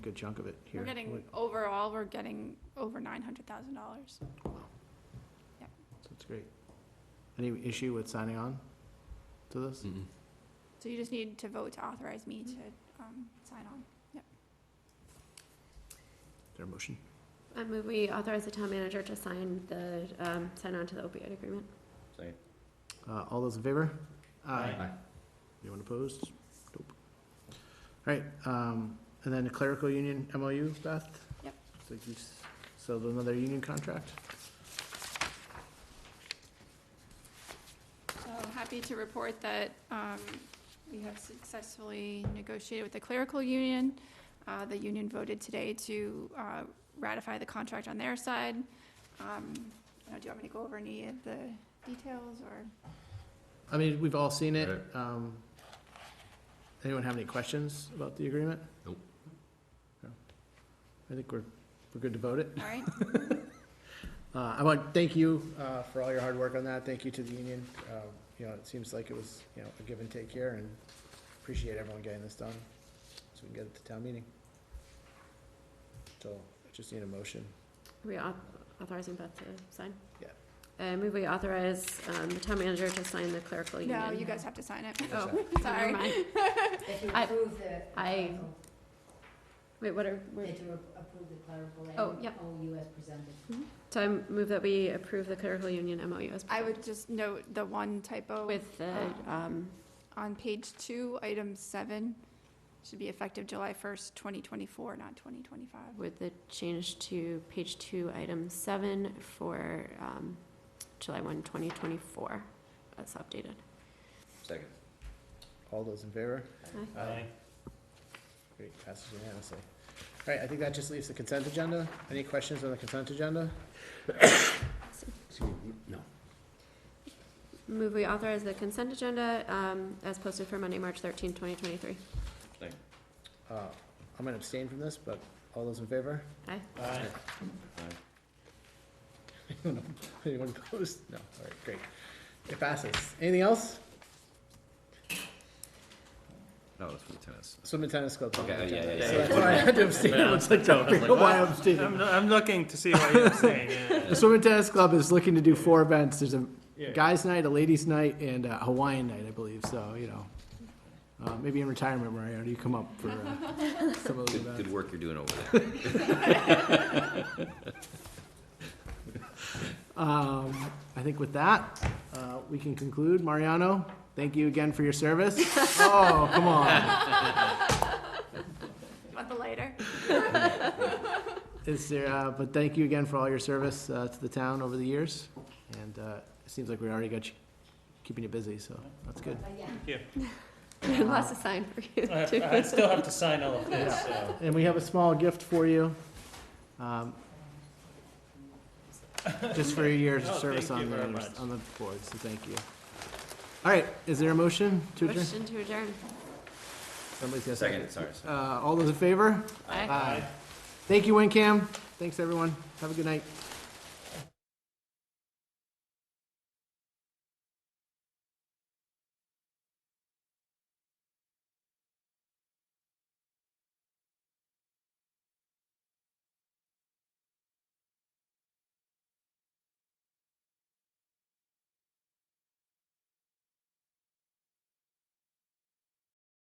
good chunk of it here. We're getting, overall, we're getting over nine hundred thousand dollars. Yep. That's great. Any issue with signing on to Hmm. this? So you just need to vote to authorize me to, um, sign on. Is there a motion? I move we authorize the town manager to sign the, um, sign on to the opioid agreement. Second. Uh, all those in favor? Aye. Anyone opposed? Nope. All right, um, and then the clerical union MOU, Beth? Yep. So you, s- so another union contract? So happy to report that um, we have successfully negotiated with the clerical union. Uh, The union voted today to uh, ratify the contract on their side. Um, uh, Do you want me to go over any of the details or? I mean, we've all seen it. Right. Um, anyone have any questions about the agreement? Nope. No. I think we're, we're good to vote it. All right, Uh, I want, thank you, uh, for all your hard work on that. Thank you to the union. Uh, you know, it seems like it was, you know, a give and take here and appreciate everyone getting this done so we can get it to town meeting. So I just need a motion. Are we au- authorizing Beth to sign? Yeah. I move we authorize, um, the town manager to sign the clerical union. no, you guys have to sign it. Oh, Sorry. never mind. If you I- approve the. I- Wait, what are, we're- That you approve the clerical Oh, and yep. OU as presented. so I move that we approve the clerical union MOU as. I would just note the one typo With the, um, on page two, item seven, should be effective July first, twenty twenty-four, not twenty twenty-five. with the change to page two, item seven for, um, July one, twenty twenty-four, as updated. Second. All those in favor? Aye. Great, passes unanimously. All right, I think that just leaves the consent agenda. Any questions on the consent agenda? No. Move we authorize the consent agenda, um, as posted for Monday, March thirteenth, twenty twenty-three. Uh, I'm gonna abstain from this, but all those in favor? Aye. Aye. Anyone opposed? No, all right, great. It passes. Anything else? No, it's for tennis. Swim and tennis club. Okay, yeah, yeah, So yeah. that's why I had to abstain. I was like, no, I don't know why I'm abstaining. I'm, I'm looking to see why you're saying it. The swim and tennis club is looking to do four events. There's a guys' night, a ladies' night, and a Hawaiian night, I believe, so, you know. Uh, maybe in retirement, Mariano, you come up for, uh, some of those Good, events. good work you're doing over there. Um, I think with that, uh, we can conclude. Mariano, thank you again for your service. Oh, come on. Want the lighter? Is there, uh, but thank you again for all your service, uh, to the town over the years. And, uh, it seems like we already got you, keeping you busy, so that's good. But yeah, Lots to sign for you. I, have, too. I still have to sign all of this, so. And we have a small gift for you. um, Just for your years of Oh, service thank on you the, very much. on the board, so thank you. All right, is there a motion to adjourn? Motion to adjourn. Somebody's got a Second, sorry, sorry. Uh, all those in favor? Aye. Thank you, WinCam. Thanks, everyone. Have a good night.